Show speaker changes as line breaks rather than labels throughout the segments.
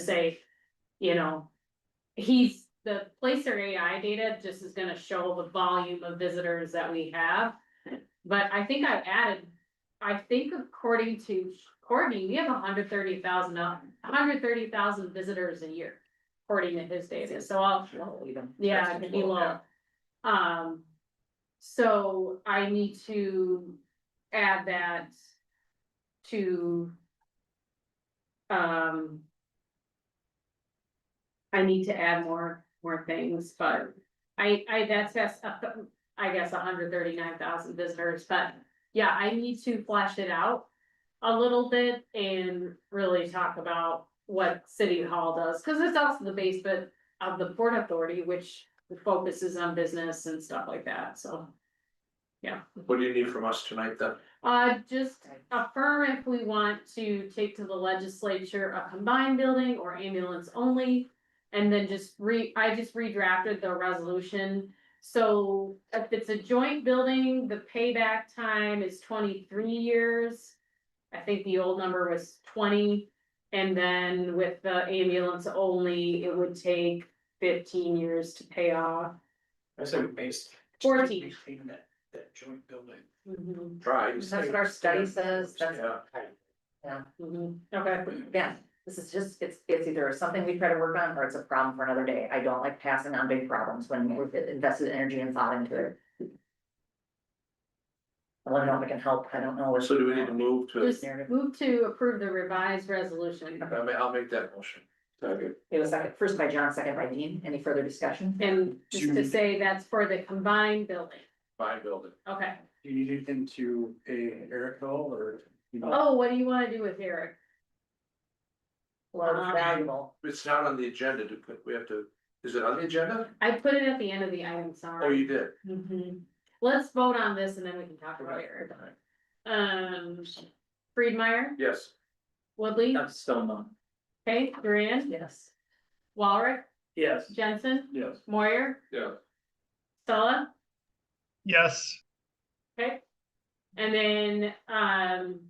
say, you know. He's, the placer AI data just is gonna show the volume of visitors that we have. But I think I've added, I think according to Courtney, we have hundred thirty thousand, hundred thirty thousand visitors a year. According to his data, so I'll, yeah,
That's
he
cool,
will.
yeah.
Um, so I need to add that to. Um. I need to add more, more things, but I, I, that's, that's, uh, I guess, hundred thirty-nine thousand visitors, but. Yeah, I need to flesh it out a little bit and really talk about what City Hall does, cause it's also the base, but of the Port Authority, which focuses on business and stuff like that, so.
What do you need from us tonight then?
Uh, just affirm if we want to take to the legislature a combined building or ambulance only. And then just re, I just redrafted the resolution, so if it's a joint building, the payback time is twenty-three years. I think the old number was twenty, and then with the ambulance only, it would take fifteen years to pay off.
I said based.
Fourteen.
Maintain that, that joint building.
Mm-hmm.
Try.
That's what our study says, that's-
Yeah,
Mhm. okay.
Yeah, this is just, it's, it's either something we try to work on or it's a problem for another day. I don't like passing on big problems when we've invested energy and thought into it. I don't know if I can help, I don't know. if-
so do we need to move to,
Just move to approve the revised resolution
I mean, I'll make that motion.
It was second, first by John, second by Dean, any further discussion?
and just to say that's for the combined building.
Buy a building.
Okay.
Do you need anything to a Eric Hill or? you know?
Oh, what do you wanna do with Eric?
Well, it's valuable,
It's not on the agenda to put, we have to, is it on the agenda?
I put it at the end of the item,
Oh, you
sorry.
did.
Mhm. Let's vote on this and then we can talk about Eric. Um, Friedmeyer,
Yes.
Woodley,
That's still not.
okay, Duran,
yes.
Walrick,
Yes.
Jensen,
Yes.
Moyer,
Yeah.
Stella,
Yes,
okay? And then, um.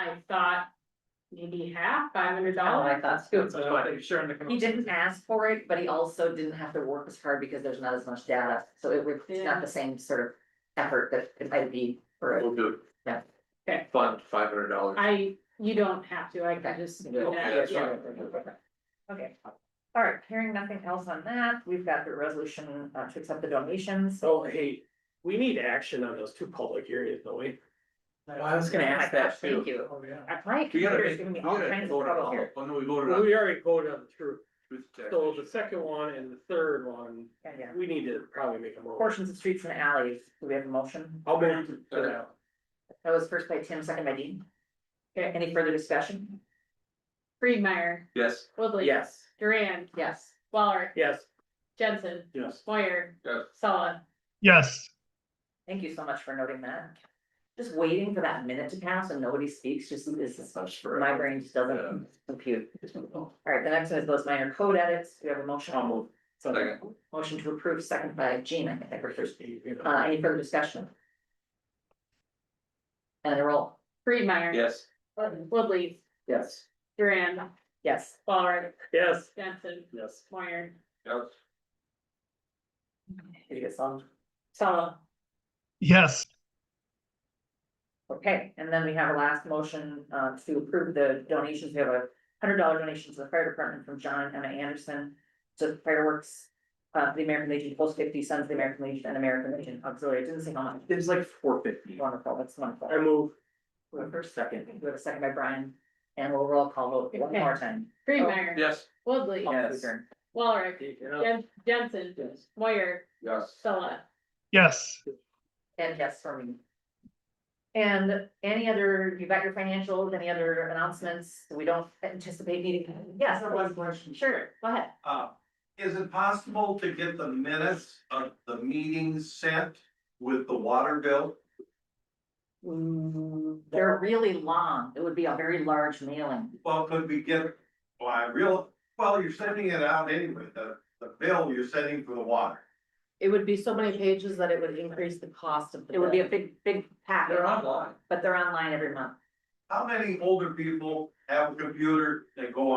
I thought maybe half, five hundred
Oh,
dollars.
I thought too.
sure in
He didn't ask for it, but he also didn't have to work as hard because there's not as much data, so it would, it's not the same sort of effort that it might be for. a-
We'll do.
Yeah.
Okay.
Fund five hundred dollars.
I, you don't have to, I can just do
Okay,
that,
that's
yeah.
fine.
Okay, all right, hearing nothing else on that, we've got the resolution uh, to accept the donations.
So hey, we need action on those two public areas, don't we?
I was
Oh
gonna.
my
ask that
gosh, Thank you.
Oh, yeah.
Uh, My
You gotta,
computer's
make-
giving
you
me all
gotta
kinds of
vote
trouble
on,
here.
when Oh, we voted on.
We already voted on the truth,
truth tax.
so the second one and the third one,
Yeah, yeah.
we need to probably make a motion.
Portions of streets and alleys, do we have a motion?
I'll move to that.
That was first by Tim, second by Dean. Okay, any further discussion?
Friedmeyer,
Yes.
Woodley.
Yes,
Duran,
Yes.
Waller,
yes,
Jensen,
yes.
Moyer,
Yes.
Sella.
yes,
Thank you so much for noting that. Just waiting for that minute to pass and nobody speaks, just this is, my brain just doesn't compute. All right, the next one is those minor code edits. Do we have a motion?
I'll move.
So,
Second.
Motion to approve, second by Jean, I think I heard first.
You know.
Uh, any further discussion? And a roll.
Friedmeyer.
Yes.
Woodley,
Yes.
Duran,
Yes.
Waller,
Yes.
Jensen,
Yes.
Moyer,
Yes.
Did you get some?
Sella.
yes,
Okay, and then we have our last motion, uh, to approve the donations. We have a hundred dollar donation to the fire department from John and Emma Anderson. To fireworks, uh, the American Legion, Post Fifty Sons, of the American Legion and American Legion Auxiliary. It Didn't say how much.
It was like four fifty.
Wonderful, that's wonderful.
I move,
We have a first second, we have a second by Brian, and we'll roll call vote one more time.
Friedmeyer.
Yes.
Woodley,
All in
Yes.
favor?
Waller,
you know,
Jen- Jensen,
Yes.
Moyer,
Yes.
Sella.
yes,
And yes for me. And any other, you got your financials, any other announcements? We don't anticipate needing, yes, there was,
question.
sure, go ahead.
Uh, is it possible to get the minutes of the meetings sent with the water bill?
Mm.
They're really long. It would be a very large mailing.
Well, could we get, well, I real, well, you're sending it out anyway, the, the bill you're sending for the water.
It would be so many pages that it would increase the cost of the.
It would be a
bill.
big, big packet,
They're online.
but they're online every month.
How many older people have a computer, they go on.